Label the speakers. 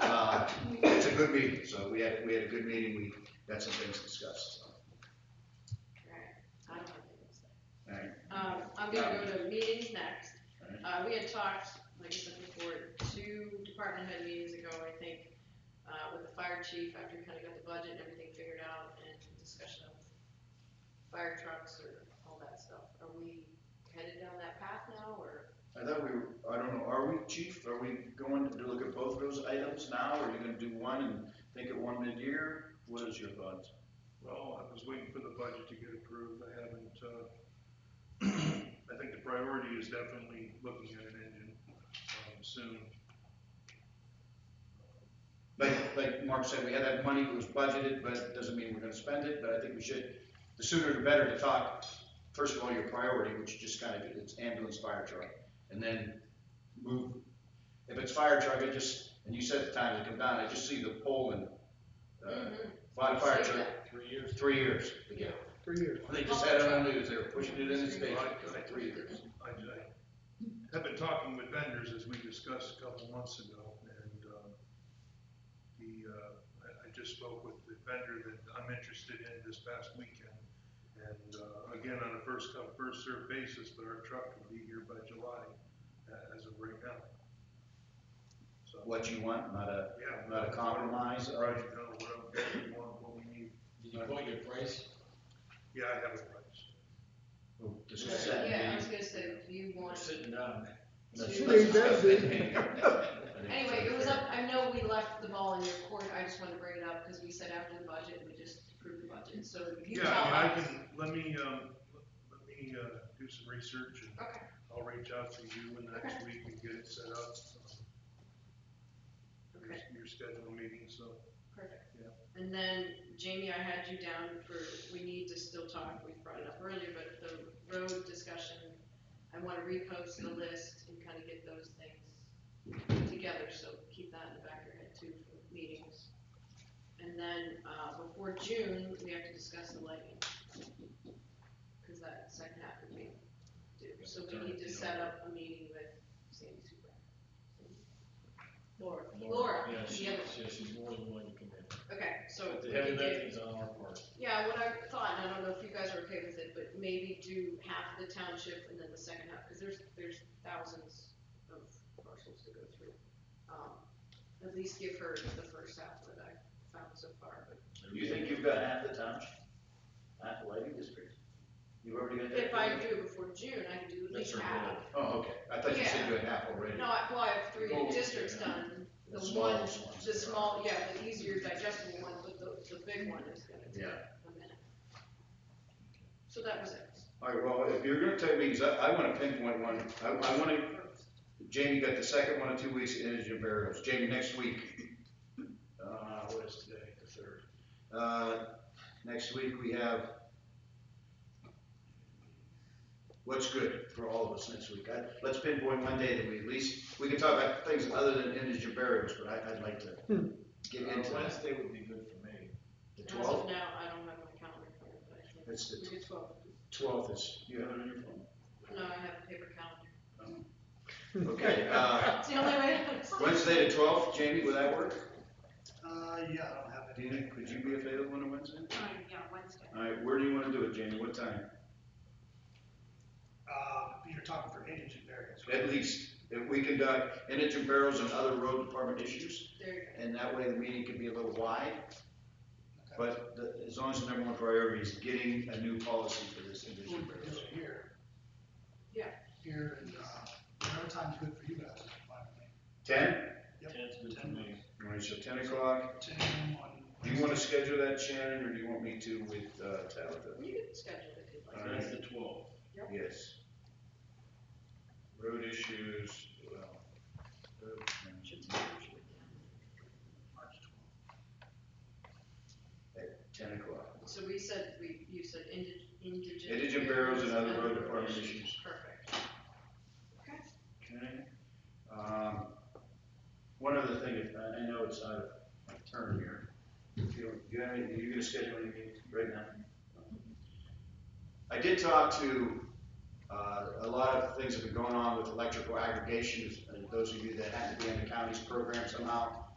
Speaker 1: Uh, good meeting, so we had, we had a good meeting, we got some things discussed, so,
Speaker 2: Alright, I don't have anything to say.
Speaker 1: all right.
Speaker 2: Um, I'm gonna go to meetings next.
Speaker 1: Alright.
Speaker 2: Uh, we had talked, like I said before, two department head meetings ago, I think, uh, with the fire chief, after we kinda got the budget and everything figured out, and discussion of fire trucks or all that stuff. Are we headed down that path now, or?
Speaker 1: I thought we, were- I don't know, are we, chief, are we going to look at both of those items now, or are you gonna do one and think of one mid-year? What is your thoughts?
Speaker 3: Well, I was waiting for the budget to get approved, I haven't, uh, I think the priority is definitely looking at an engine, um, soon.
Speaker 1: Like, like Mark said, we had that money, it was budgeted, but it doesn't mean we're gonna spend it, but I think we should, the sooner the better to talk, first of all, your priority, which you just kind of, it's ambulance, fire truck, and then move. If it's fire truck, I just, and you said at the time to come down, I just see the pole and, uh, fire, fire truck,
Speaker 3: Three years.
Speaker 1: three years
Speaker 2: Mm-hmm.
Speaker 1: to get.
Speaker 4: Three years.
Speaker 1: They just had it on the news, they were pushing it in the state for like three years.
Speaker 3: I, I have been talking with vendors as we discussed a couple months ago, and, um, the, uh, I, I just spoke with the vendor that I'm interested in this past weekend. And, uh, again, on a first come, first served basis, but our truck will be here by July, uh, as of right now. So,
Speaker 1: What you want, not a,
Speaker 3: yeah.
Speaker 1: not a compromise, or,
Speaker 3: Right, no, what, what we want, what we need,
Speaker 5: Did you quote your price?
Speaker 3: yeah, I have a price.
Speaker 1: we'll discuss that. in
Speaker 2: Yeah, I
Speaker 1: meeting.
Speaker 2: was gonna say, do you
Speaker 5: We're
Speaker 2: want
Speaker 5: sitting down.
Speaker 2: to?
Speaker 1: Let's-
Speaker 4: She
Speaker 1: let's
Speaker 4: ain't that
Speaker 1: discuss that in meeting.
Speaker 2: Anyway, it was up, I know we left the ball in your court, I just wanted to bring it up, because we said after the budget, we just approved the budget, so if you
Speaker 3: Yeah,
Speaker 2: tell
Speaker 3: I mean, I
Speaker 2: us.
Speaker 3: can, let me, um, let me, uh, do some research and
Speaker 2: Okay,
Speaker 3: I'll reach out to you in the next week and get it set up. um,
Speaker 2: Okay.
Speaker 3: Your scheduled meeting, so,
Speaker 2: perfect.
Speaker 3: Yeah.
Speaker 2: And then Jamie, I had you down for, we need to still talk, we brought it up earlier, but the road discussion, I wanna repost the list and kinda get those things together, so keep that in the back of your head too for meetings. And then, uh, before June, we have to discuss the lighting. Cause that second half would be due, so we need to set up a meeting with Sandy Super. Laura, Laura,
Speaker 5: Yeah, she,
Speaker 2: yeah,
Speaker 5: yeah, she's more than willing to come in.
Speaker 2: Okay, so
Speaker 5: But
Speaker 2: we
Speaker 5: the heavy
Speaker 2: can do,
Speaker 5: lifting's on our part.
Speaker 2: yeah, what I thought, and I don't know if you guys are okay with it, but maybe do half the township and then the second half, because there's, there's thousands of parcels to go through. Um, At least give her the first half that I found so far, but
Speaker 1: You think you've got half the township, half the lighting district? You've already got that?
Speaker 2: if I do it before June, I can do at
Speaker 5: That's
Speaker 2: least
Speaker 5: her
Speaker 2: half.
Speaker 5: goal.
Speaker 1: Oh, okay, I thought you said you had half already.
Speaker 2: No, I- well, I have three
Speaker 1: Goal.
Speaker 2: districts done, the one,
Speaker 1: smallest ones.
Speaker 2: the small, yeah, the easier digestible one, but the, the big one is gonna take
Speaker 1: Yeah,
Speaker 2: a minute. So that was it.
Speaker 1: all right, well, if you're gonna take meetings, I, I wanna pinpoint one, I, I wanna, Jamie got the second one in two weeks, indigent burials, Jamie, next week. Uh, what is today, the third? Uh, next week we have. What's good for all of us next week, I, let's pinpoint one day that we at least, we can talk about things other than indigent burials, but I, I'd like to get into
Speaker 5: Uh,
Speaker 1: that.
Speaker 5: Wednesday would be good for me.
Speaker 1: The
Speaker 2: As of
Speaker 1: twelfth,
Speaker 2: now, I don't have my calendar for it, but I think
Speaker 1: It's the-
Speaker 2: we did twelve.
Speaker 1: twelfth is, you have it on your phone?
Speaker 2: No, I have a paper calendar.
Speaker 1: Okay, uh,
Speaker 2: It's the only way. I can see.
Speaker 1: Wednesday the twelfth, Jamie, would that work?
Speaker 4: Uh, yeah, I don't have
Speaker 1: Dana, could you be available on a Wednesday?
Speaker 6: Time, Uh, yeah, Wednesday.
Speaker 1: All right, where do you wanna do it, Jamie, what time?
Speaker 4: Uh, you're talking for indigent variants.
Speaker 1: At least, if we conduct indigent barrels and other road department issues,
Speaker 2: There you go.
Speaker 1: and that way the meeting can be a little wide, but the- as long as the number one priority is getting a new policy for this
Speaker 4: We
Speaker 1: indigent
Speaker 4: could do
Speaker 1: barrels.
Speaker 4: it here.
Speaker 2: Yeah.
Speaker 4: Here, and, uh, whatever time's good for you guys, is fine with me.
Speaker 1: Ten?
Speaker 4: Yep.
Speaker 5: Ten's good for me.
Speaker 1: All right, so ten o'clock,
Speaker 4: Ten on
Speaker 1: do you wanna schedule that, Shannon, or do you want me to with, uh, Tabitha?
Speaker 2: You can schedule it if you'd
Speaker 1: All
Speaker 2: like.
Speaker 1: right.
Speaker 5: That's the twelfth.
Speaker 1: Yes. Road issues, well. uh, road management.
Speaker 4: March twelfth.
Speaker 1: Ten o'clock.
Speaker 2: So we said, we, you said indig- indigent.
Speaker 1: Indigent barrels and other road department issues.
Speaker 2: Perfect. Okay.
Speaker 1: Okay. Um, one other thing, if, I I know it's out of my turn here. If you don't, you have any, are you gonna schedule any meetings right now? I did talk to, uh, a lot of things that have been going on with electrical aggregations, and those of you that happen to be in the county's program somehow.